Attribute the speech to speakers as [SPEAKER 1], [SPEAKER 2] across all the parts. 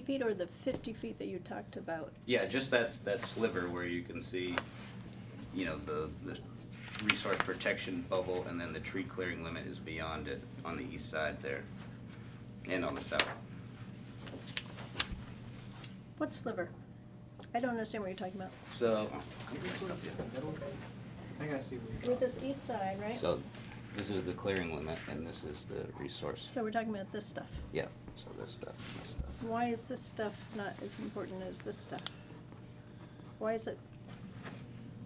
[SPEAKER 1] feet or the fifty feet that you talked about?
[SPEAKER 2] Yeah, just that's, that sliver where you can see, you know, the, the resource protection bubble and then the tree clearing limit is beyond it on the east side there and on the south.
[SPEAKER 1] What sliver? I don't understand what you're talking about.
[SPEAKER 2] So,
[SPEAKER 3] Is this sort of in the middle? I gotta see what you
[SPEAKER 1] With this east side, right?
[SPEAKER 2] so this is the clearing limit and this is the resource.
[SPEAKER 1] So we're talking about this stuff.
[SPEAKER 2] Yeah, so this stuff, this stuff.
[SPEAKER 1] Why is this stuff not as important as this stuff? Why is it?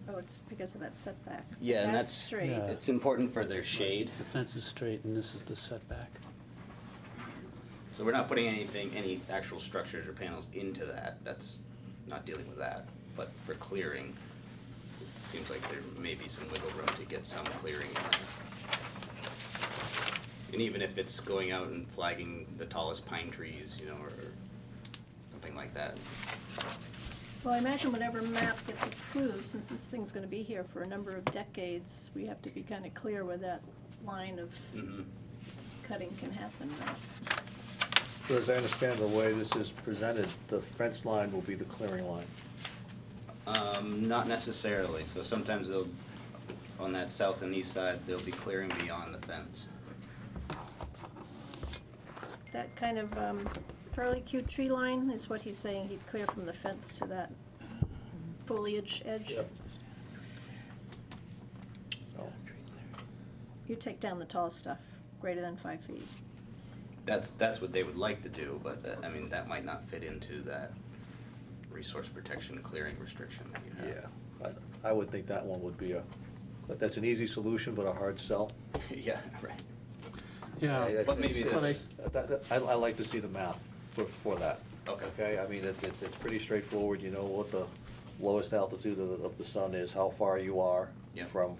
[SPEAKER 1] Oh, it's because of that setback.
[SPEAKER 2] Yeah, and that's-
[SPEAKER 1] straight.
[SPEAKER 4] Yeah.
[SPEAKER 2] It's important for their shade.
[SPEAKER 4] The fence is straight and this is the setback.
[SPEAKER 2] So we're not putting anything, any actual structures or panels into that, that's not dealing with that, but for clearing, it seems like there may be some wiggle room to get some clearing in there. And even if it's going out and flagging the tallest pine trees, you know, or something like that.
[SPEAKER 1] Well, I imagine whatever map gets approved, since this thing's gonna be here for a number of decades, we have to be kinda clear where that line of
[SPEAKER 2] Mhm.
[SPEAKER 1] cutting can happen, right?
[SPEAKER 5] So as I understand the way this is presented, the fence line will be the clearing line.
[SPEAKER 2] Um, not necessarily, so sometimes they'll, on that south and east side, they'll be clearing beyond the fence.
[SPEAKER 1] That kind of um, curly Q tree line is what he's saying, he'd clear from the fence to that foliage edge.
[SPEAKER 5] Yep. Oh,
[SPEAKER 1] You take down the tall stuff, greater than five feet.
[SPEAKER 2] That's, that's what they would like to do, but that, I mean, that might not fit into that resource protection clearing restriction that you have.
[SPEAKER 5] Yeah, I, I would think that one would be a, but that's an easy solution, but a hard sell.
[SPEAKER 2] Yeah, right.
[SPEAKER 5] I- I-
[SPEAKER 4] Yeah,
[SPEAKER 2] But maybe
[SPEAKER 5] it's-
[SPEAKER 4] it's-
[SPEAKER 5] it's- that- that- I, I like to see the math for, for that.
[SPEAKER 2] Okay.
[SPEAKER 5] Okay, I mean, it's, it's, it's pretty straightforward, you know what the lowest altitude of, the- of the sun is, how far you are
[SPEAKER 2] Yeah.
[SPEAKER 5] from,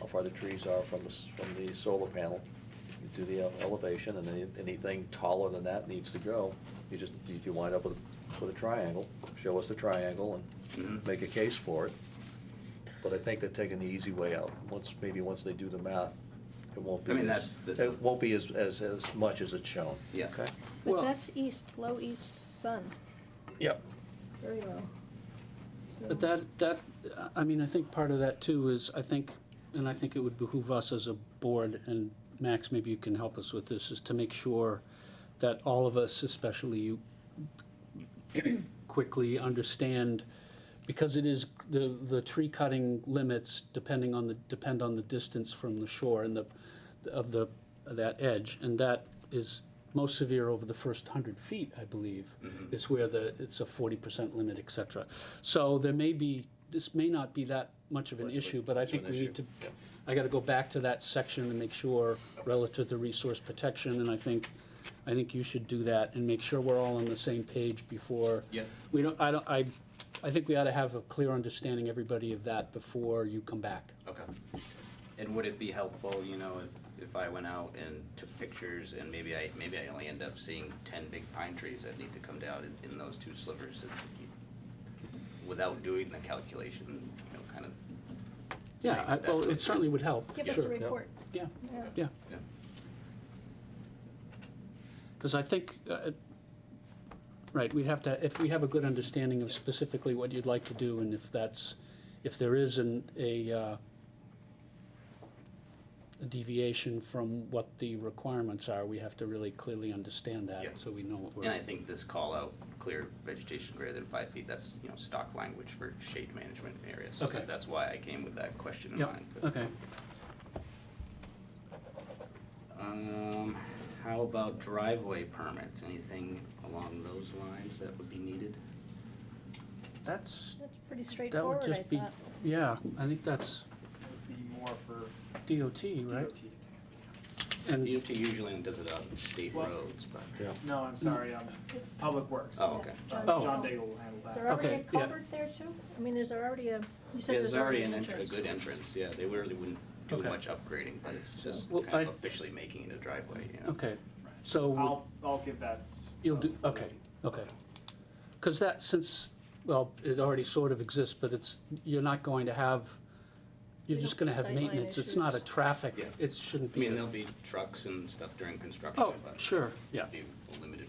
[SPEAKER 5] how far the trees are from the, s- from the solar panel. You do the ele- elevation, and any, anything taller than that needs to go. You just, you, you wind up with, with a triangle, show us the triangle and
[SPEAKER 2] Mhm.
[SPEAKER 5] make a case for it. But I think they're taking the easy way out. Once, maybe once they do the math, it won't
[SPEAKER 2] I
[SPEAKER 5] be
[SPEAKER 2] mean,
[SPEAKER 5] as,
[SPEAKER 2] that's the-
[SPEAKER 5] it won't be as, as, as much as it's shown.
[SPEAKER 2] Yeah.
[SPEAKER 5] Okay?
[SPEAKER 1] But
[SPEAKER 4] Well-
[SPEAKER 1] that's east, low east sun,
[SPEAKER 5] Yep.
[SPEAKER 1] very low. So-
[SPEAKER 4] But that, that, I mean, I think part of that too is, I think, and I think it would behoove us as a board, and Max, maybe you can help us with this, is to make sure that all of us, especially you, quickly understand, because it is, the, the tree cutting limits depending on the, depend on the distance from the shore and the, of the, that edge, and that is most severe over the first hundred feet, I believe.
[SPEAKER 5] Mm-hmm.
[SPEAKER 4] It's where the, it's a forty percent limit, et cetera. So there may be, this may not be that much of an
[SPEAKER 5] Much of a-
[SPEAKER 4] issue, but I
[SPEAKER 5] much of
[SPEAKER 4] think
[SPEAKER 5] an
[SPEAKER 4] we
[SPEAKER 5] issue,
[SPEAKER 4] need to,
[SPEAKER 5] yeah.
[SPEAKER 4] I gotta go back to that section and make sure relative to resource protection, and I think, I think you should do that and make sure we're all on the same page before.
[SPEAKER 2] Yeah.
[SPEAKER 4] We don't, I don't, I, I think we ought to have a clear understanding, everybody, of that before you come back.
[SPEAKER 2] Okay. And would it be helpful, you know, if, if I went out and took pictures and maybe I, maybe I only end up seeing ten big pine trees that need to come down in, in those two slivers? and- Without doing the calculation, you know, kind of.
[SPEAKER 4] Yeah,
[SPEAKER 2] saying
[SPEAKER 4] I,
[SPEAKER 2] that-
[SPEAKER 4] well, it certainly would help.
[SPEAKER 1] Give us a
[SPEAKER 4] sure.
[SPEAKER 1] report.
[SPEAKER 4] Yeah,
[SPEAKER 1] Yeah.
[SPEAKER 4] yeah.
[SPEAKER 2] Yeah.
[SPEAKER 4] Because I think, uh, right, we'd have to, if we have a good understanding of specifically what you'd like to do, and if that's, if there is an, a, uh, a deviation from what the requirements are, we have to really clearly understand
[SPEAKER 2] Yeah.
[SPEAKER 4] that, so we know what we're.
[SPEAKER 2] And I think this call out, clear vegetation greater than five feet, that's, you know, stock language for shade management areas. So
[SPEAKER 4] Okay.
[SPEAKER 2] that- that's why I came with that question in
[SPEAKER 4] Yep,
[SPEAKER 2] mind.
[SPEAKER 4] okay.
[SPEAKER 2] Um, how about driveway permits? Anything along those lines that would be needed?
[SPEAKER 4] That's,
[SPEAKER 1] That's pretty
[SPEAKER 4] that
[SPEAKER 1] straightforward,
[SPEAKER 4] would
[SPEAKER 1] I
[SPEAKER 4] just be,
[SPEAKER 1] thought.
[SPEAKER 4] yeah, I think that's
[SPEAKER 3] would be more for
[SPEAKER 4] DOT, right?
[SPEAKER 3] DOT.
[SPEAKER 4] And,
[SPEAKER 2] DOT usually does it on state
[SPEAKER 3] Well-
[SPEAKER 2] roads, but,
[SPEAKER 3] No, I'm sorry, um,
[SPEAKER 1] It's-
[SPEAKER 3] Public Works.
[SPEAKER 2] oh, okay.
[SPEAKER 3] John
[SPEAKER 4] Oh.
[SPEAKER 3] John Daigle will handle
[SPEAKER 1] Is
[SPEAKER 3] that.
[SPEAKER 1] there already a
[SPEAKER 4] Okay, yeah.
[SPEAKER 1] culvert there too? I mean, there's already a, you said
[SPEAKER 2] Yeah,
[SPEAKER 1] there's already an
[SPEAKER 2] entr-
[SPEAKER 1] entrance.
[SPEAKER 2] A good entrance, yeah, they really wouldn't do
[SPEAKER 4] Okay.
[SPEAKER 2] much upgrading, but it's just
[SPEAKER 4] Well,
[SPEAKER 2] kind
[SPEAKER 4] I- Oh.
[SPEAKER 2] of officially making it a driveway, you know?
[SPEAKER 4] okay, so,
[SPEAKER 3] I'll, I'll give that.
[SPEAKER 4] you'll do, okay, okay. Because that, since, well, it already sort of exists, but it's, you're not going to have, you're
[SPEAKER 1] You
[SPEAKER 4] just
[SPEAKER 1] don't
[SPEAKER 4] gonna have
[SPEAKER 1] have sightline
[SPEAKER 4] maintenance, it's not a
[SPEAKER 1] issues.
[SPEAKER 4] traffic,
[SPEAKER 2] Yeah.
[SPEAKER 4] it shouldn't
[SPEAKER 2] I
[SPEAKER 4] be.
[SPEAKER 2] mean,
[SPEAKER 4] a-
[SPEAKER 2] there'll be trucks and stuff during construction,
[SPEAKER 4] Oh,
[SPEAKER 2] but
[SPEAKER 4] sure, yeah,
[SPEAKER 2] it'd be limited